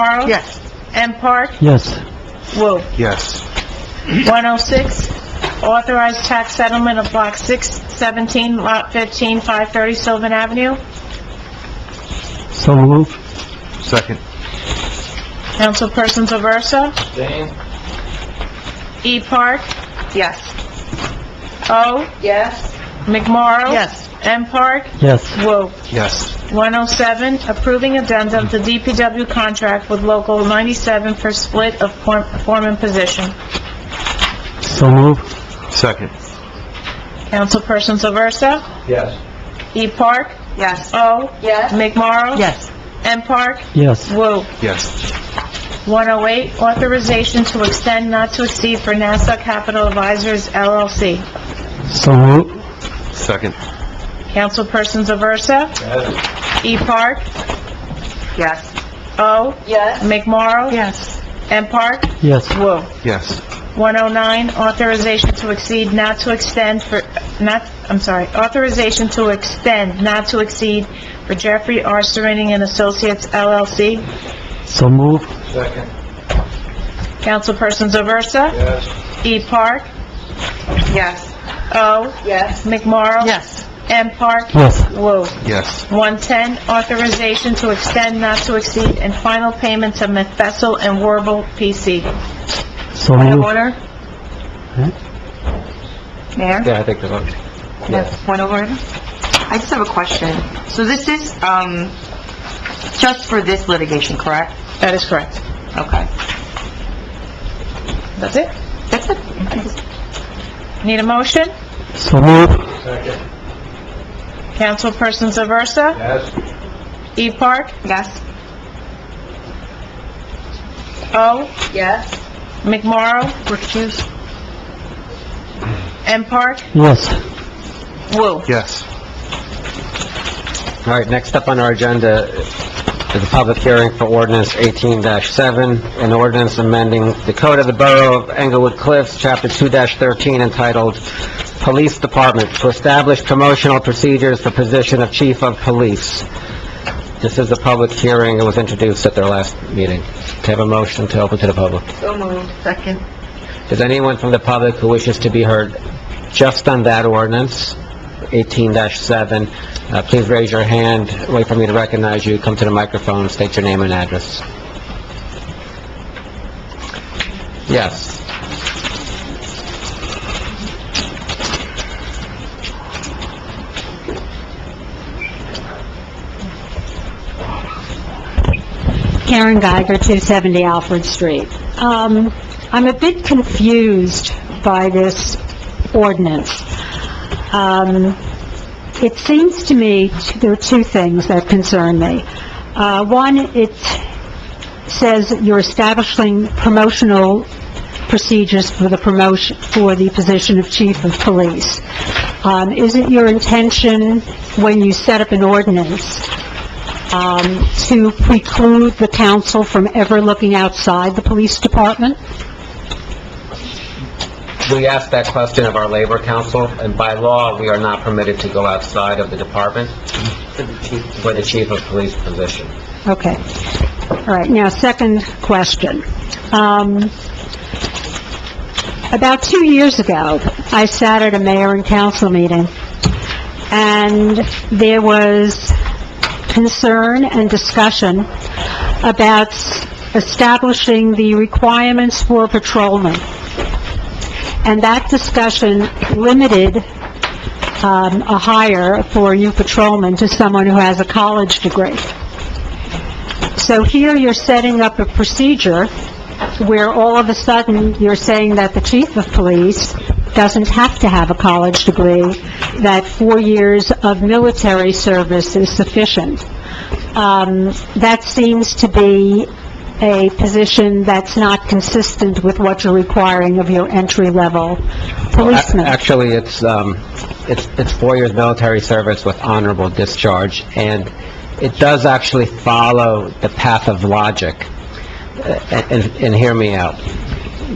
Charles? Yes. M. Park? Yes. Woo. Yes. 106, authorize oh tax settlement of Block 617, Lot 15, 530 Sylvan Avenue. So moved. Second. Councilperson Aversa? E. Park? Yes. O. yes, McMorro? Yes. M. Park? Yes. Woo. Yes. 107, approving addendum to DPW contract with Local 97 for split of form- foreman position. So moved. Second. Councilperson Aversa? Yes. E. Park? Yes. O. yes, McMorro? Yes. M. Park? Yes. Woo. Yes. 108, authorization to extend not to exceed for NASA Capital Advisors LLC. So moved. Second. Councilpersons Aversa, Yes. E. Park, Yes. O. yes, McMorro. Yes. M. Park. Yes. Woo. Yes. 109, authorization to exceed not to extend for, not, I'm sorry, authorization to extend not to exceed for Jeffrey R. Serenian and Associates LLC. So moved. Second. Councilpersons Aversa, Yes. E. Park, Yes. O. yes, McMorro. Yes. M. Park. Yes. Woo. Yes. 110, authorization to extend not to exceed and final payment to Methessel and Warble PC. So Point of moved. order? Mayor? Yeah, I think that's okay. Yes, point over. I just have a question. So this is, um, just for this litigation, correct? That is correct. Okay. That's it? That's it. Need a motion? So moved. Second. Councilpersons Aversa? Yes. E. Park? Yes? O. yes, McMorro? Recuse. M. Park? Yes. Woo. Yes. All right, next up on our agenda is a public hearing for ordinance 18-7, an ordinance amending the code of the Borough of Englewood Cliffs, Chapter 2-13, entitled Police Department, to establish promotional procedures for position of Chief of Police. This is a public hearing, it was introduced at their last meeting. To have a motion to open to the public. so moved, Second. Is anyone from the public who wishes to be heard just on that ordinance, 18-7? Uh, Please raise your hand, wait for me to recognize you, come to the microphone, state your name and address. Yes. Karen Geiger, 270 Alfred Street. Um, I'm a bit confused by this ordinance. Um, It seems to me, t- there are two things that concern me. Uh, One, it says that you're establishing promotional procedures for the promotion, for the position of chief of police. Um, Is it your intention, when you set up an ordinance, um, to preclude the council from ever looking outside the police department? We asked that question of our Labor Council, and by law, we are not permitted to go outside of the department for the chief of police position. Okay. All right, now, second question. Um, about two years ago, I sat at a mayor and council meeting, and there was concern and discussion about s- establishing the requirements for patrolmen. And that discussion limited, um, a hire for a new patrolman to someone who has a college degree. So here you're setting up a procedure where all of a sudden you're saying that the chief of police doesn't have to have a college degree, that four years of military service is sufficient. Um, that seems to be a position that's not consistent with what you're requiring of your entry-level Ac- policeman. Actually, it's, um, it's, it's four years military service with honorable discharge, and it does actually follow the path of logic. Uh, And, and hear me out.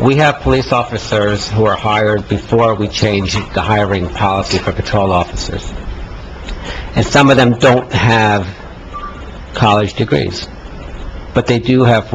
We have police officers who are hired before we change the hiring policy for patrol officers. And some of them don't have college degrees, but they do have